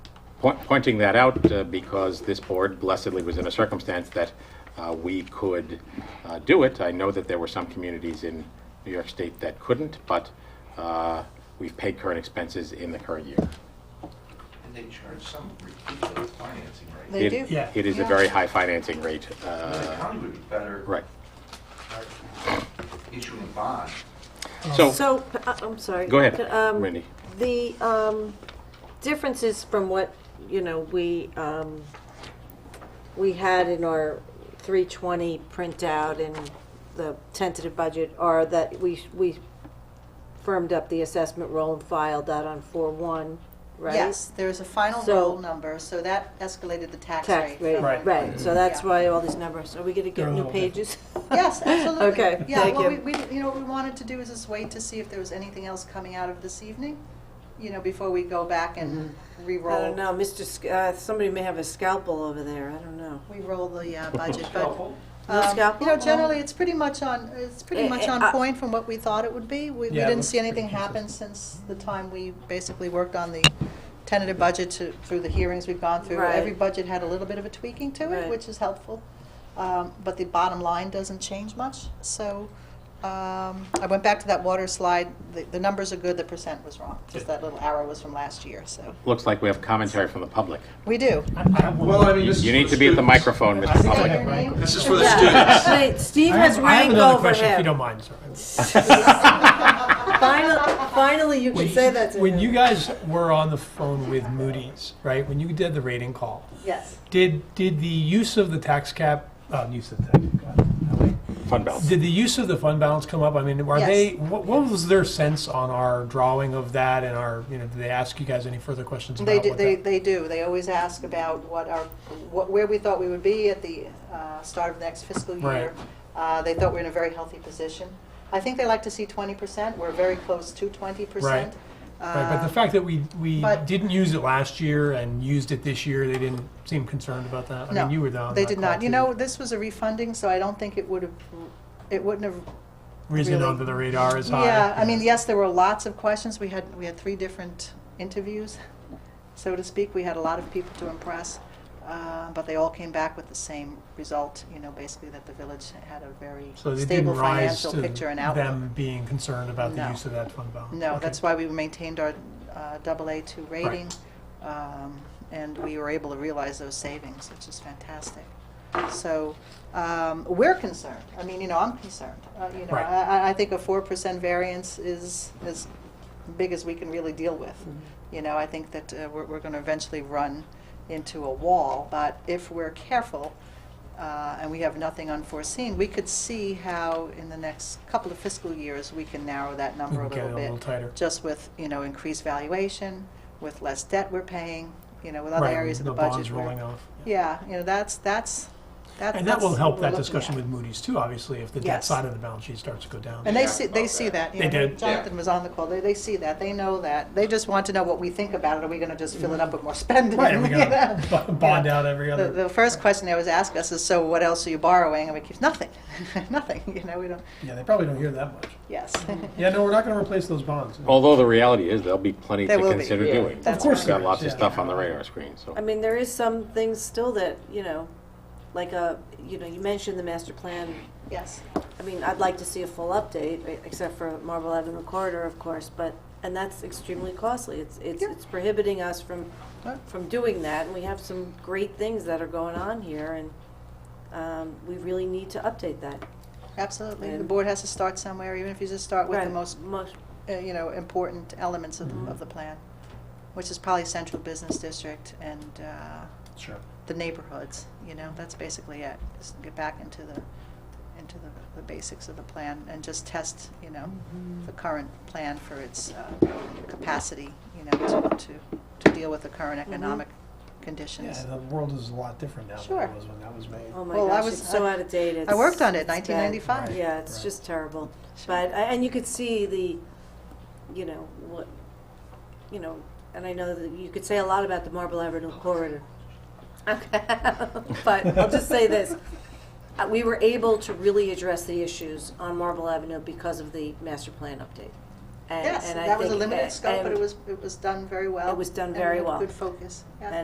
point- pointing that out uh, because this board blessedly was in a circumstance that uh, we could uh, do it. I know that there were some communities in New York State that couldn't, but uh, we've paid current expenses in the current year. And they charge some ridiculous financing rate. They do. It- Yeah. It is a Yeah. very high financing rate. I mean, The uh, county would be better. Right. charging- Issuing a bond. So, So, uh, I'm sorry. go ahead, Um, Randy. The um, differences from what, you know, we, um, we had in our 320 printout and the tentative budget are that we, we firmed up the assessment roll and filed that on 4-1, right? Yes, there is a final So- roll number, so that escalated the tax rate. Tax rate, from- Right. right, so that's Yeah. why all these numbers, are we gonna They're get a new little pages? Yes, absolutely. Okay, Yeah, thank well, we, you. we, you know, what we wanted to do is just wait to see if there was anything else coming out of this evening, you know, before we go back and I re-roll. don't know, Mr., Sc- uh, somebody may have a scalpel over there, I don't know. We roll the uh, budget, but. Helpful. No um, scalpel? You know, generally, it's pretty much on, it's uh-huh. Eh, pretty much eh, on uh, point from what we thought it would be. We, we Yeah, it didn't looks see anything pretty happen since the time we basically worked on the tentative budget to, through the hearings we've gone through. Right. Every budget had a little bit of a tweaking to Right. it, which is helpful. Um, But the bottom line doesn't change much, so um, I went back to that water slide. The, the numbers are good, the percent was wrong. Just that little arrow was from last year, so. Looks like we have commentary from the public. We do. I- I have one Well, I mean, this is You for need to the be at the students. microphone, I Mr. think I Public. have rank. This is for the students. Yeah. Wait, Steve I have- has I have rank another over question, if you him. don't mind, sorry. Finally, finally, you can say that to him. When you guys were on the phone with Moody's, right, when you did the rating call, Yes. did, did the use of the tax cap, uh, use of the, God, golly. Fund balance. did the use of the fund balance come up? I mean, are Yes. they, what, what was their sense on our drawing of that and our, you know, did they ask you guys any further questions about They what do, that? they, they do. They always ask about what our, what, where we thought we would be at the uh, start of the next fiscal Right. year. Uh, They thought we were in a very healthy position. I think they like to see twenty percent. We're very close to twenty percent. Um, Right, but the fact that we, we uh, but- didn't use it last year and used it this year, they didn't seem concerned about that. I No, mean, you were down. They did not. You know, this was a refunding, so I don't think it would have, it wouldn't have Reason really- under the radar is high. Yeah, I mean, yes, there were lots of questions. We had, we had three different interviews, so to speak. We had a lot of people to impress, uh, but they all came back with the same result, you know, basically that the village had a very So they stable didn't rise financial to picture and outlook. them being concerned about the No. use of that fund balance. No, Okay. that's why we maintained our uh, double A two rating, um, and we were able to realize those savings, which is fantastic. So, um, we're concerned, I mean, you know, I'm concerned, Uh, you know, Right. I, I- I think a four percent variance is as big as we can really deal with. Mm-hmm. You know, I think that uh, we're, we're gonna eventually run into a wall, but if we're careful, uh, and we have nothing unforeseen, we could see how in the next couple of fiscal years, we can narrow that number We a can get little it a little bit. tighter. Just with, you know, increased valuation, with less debt we're paying, you know, with other Right, areas of the bonds budget. where- rolling off. Yeah, you know, that's, that's, that- that's. And that will what help we're that looking at. discussion with Moody's too, obviously, if the debt Yes. side of the balance sheet starts to go down. And they Yeah, see, about they see that. that. you They know, did. Jonathan was on the call, they, they see that, they know that. They just want to know what we think about it, are we gonna just fill it up with more spending? Right, and we you gotta know? b- bond Yeah. out every The, other, the first question they always ask us is, so what else are you borrowing? And we keep, nothing, nothing, you know, we don't, yeah, they probably don't hear that much. yes. Mm-hmm. Yeah, no, we're not gonna replace those bonds. Although the reality is, there'll be plenty to There will be, consider yeah. doing. That's course We've there got lots of is, yeah. stuff on the radar screen, so. I mean, there is some things still that, you know, like a, you know, you mentioned the master plan. Yes. I mean, I'd like to see a full update, e- except for Marble Avenue corridor, of course, but, and that's extremely costly. It's, it's, Yeah. it's prohibiting us from, Right. from doing that, and we have some great things that are going on here, and, um, we really need to update that. Absolutely. The And- board has to start somewhere, even if you just start with the Right. Mm-hmm. most, Most, uh, you know, important elements of, the- of the plan, which is probably central business district and uh, Sure. the neighborhoods, you know, that's basically it. Just get back into the, into the, the basics of the plan and just test, you know, Mm-hmm. the current plan for its uh, capacity, you know, to, to, to deal with the current economic Yeah, conditions. the world is a lot different now than Sure. it was when that was made. oh my Well, I gosh, was- it's so I- out of date. I It's- worked on it, it's bad. nineteen ninety-five. Yeah, it's Right. just terrible. Sure. But, I- and you could see the, you know, what, you know, and I know that you could say a lot about the Marble Avenue Oh, corridor. Okay, but I'll just say this. Uh, We were able to really address the issues on Marble Avenue because of the master plan update. And- Yes, and I that was a think- limited scope, but and- it was, it was done very well. It was done and very with well. Good focus, yeah.